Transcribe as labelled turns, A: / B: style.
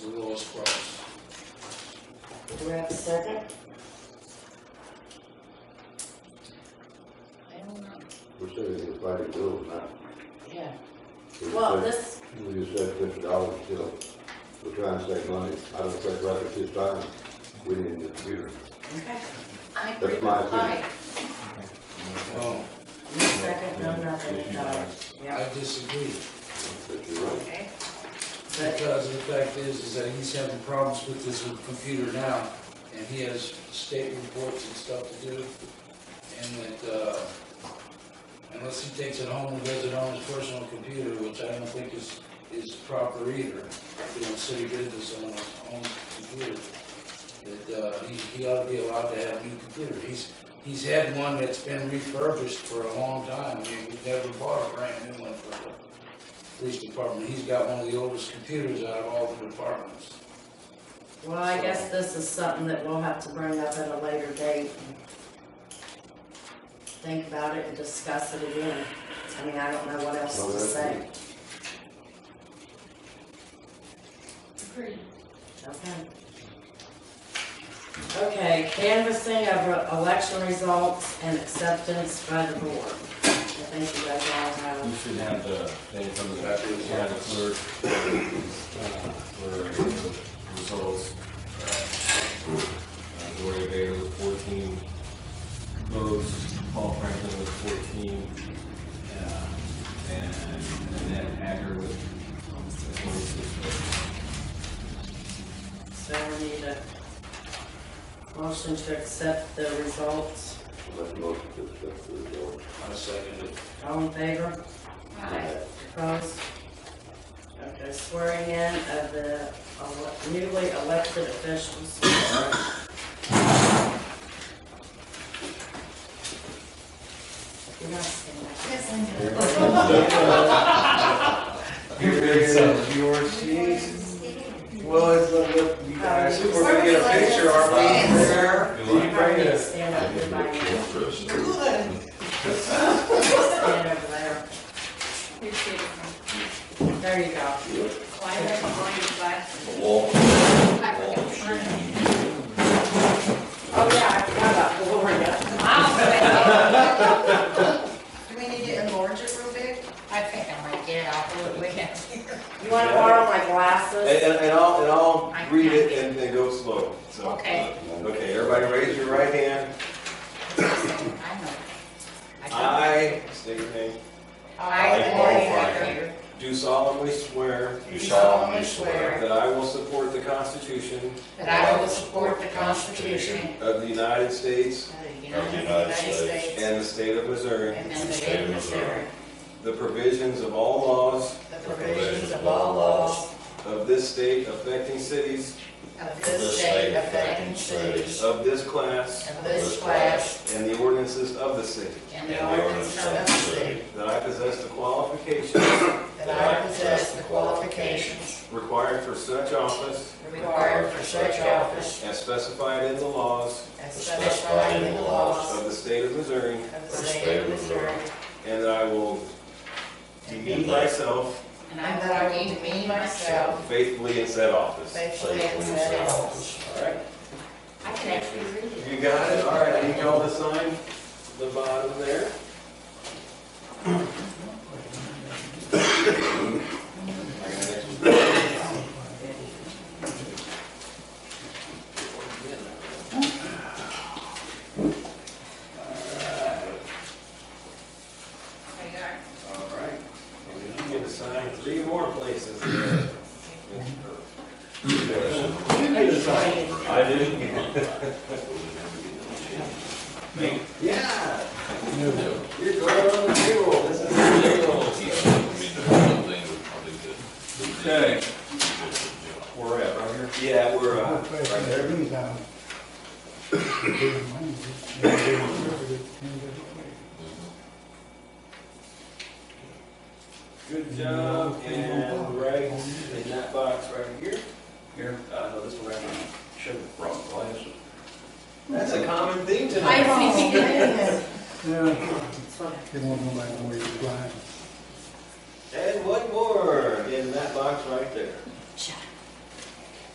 A: those quotes.
B: Do we have a second?
C: I don't know,
D: We're saving the fighting bills now.
B: Yeah,
D: We
B: well,
D: said-
B: this,
D: We just said fifty dollars still, we're trying to save money. I don't think right at this time, we need the computer.
B: I agree with
D: That's my opinion.
B: Mike.
A: Well,
B: No second, no nothing, no,
A: I
B: yeah,
A: disagree,
D: But you're right.
B: okay. But,
A: because the fact is, is that he's having problems with his computer now, and he has state reports and stuff to do, and that, uh, unless he takes it home and does it on his personal computer, which I don't think is, is proper either, doing city business on his own computer, that, uh, he, he ought to be allowed to have a new computer. He's, he's had one that's been refurbished for a long time, We- we've never bought a brand new one for the police department, he's got one of the oldest computers out of all the departments.
B: well, I guess this is something that we'll have to bring up at a later date. and Think about it and discuss it again. I mean, I don't know what else
D: Well,
B: to
D: that's-
B: say,
C: agree.
B: okay? Okay, canvassing of election results and acceptance by the board. I think you guys all have.
E: You should have the thing from the yeah, the clerk, uh, for the results. Uh, Gloria Bader with fourteen votes, Paul Franklin with fourteen, uh, and Annette Hager with twenty-six votes.
B: So we need a motion to accept the results.
D: I'll make a motion to accept the results.
A: I second it.
B: All in favor?
C: Aye.
B: Opposed? Okay, swearing in of the ele- newly elected officials. You're not saying that.
C: Yes, I know.
F: Well, it's not up to you guys, if we're gonna get a picture, are we there? Do you bring
B: Everybody
F: it?
B: Stand up, everybody. Stand over there.
C: Appreciate it.
B: There you go.
C: Why are you going to buy?
B: Oh, yeah, I forgot about Gloria.
C: Do we need to enlarge it real big? I think I might get out of the way.
B: You want to borrow my glasses?
F: And, and and I'll, and I'll read it and then go slow, so.
C: Okay.
F: Okay, everybody raise your right hand.
C: I know. I
F: I, state your name,
C: don't- I,
F: Paul
C: Gloria
F: do solemnly swear
C: Baker, do solemnly swear
F: that I will support the Constitution
C: that I will support the Constitution
F: of the United States
C: of the United States
F: and the state of Missouri,
C: and the state of Missouri,
F: the provisions of all laws
C: the provisions of all laws
F: of this state affecting cities
C: of this state affecting cities
F: of this class
C: of this class
F: and the ordinances of the city,
C: and the ordinance of the city,
F: that I possess the qualifications
C: that I possess the qualifications
F: required for such office
C: required for such office
F: as specified in the laws
C: as specified in the laws
F: of the state of Missouri,
C: of the state of Missouri,
F: and that I will demean myself
C: and I- that I will demean myself
F: faithfully in said office.
C: faithfully and set office.
F: All right,
C: I can actually read it.
F: you got it, all right, I need y'all to sign the bottom there. I got an extra All right, and you can assign three more places. there. You can assign.
D: I didn't.
F: Yeah. You're going on the payroll, this is the payroll.
E: Okay.
F: We're at, right here? Yeah, we're, uh, right there. Good job, and right in that box right here. Here, uh, no, this one right here. Should have brought glasses. That's a common theme tonight.
G: They won't know about where you're blind.
F: And one more in that box right there.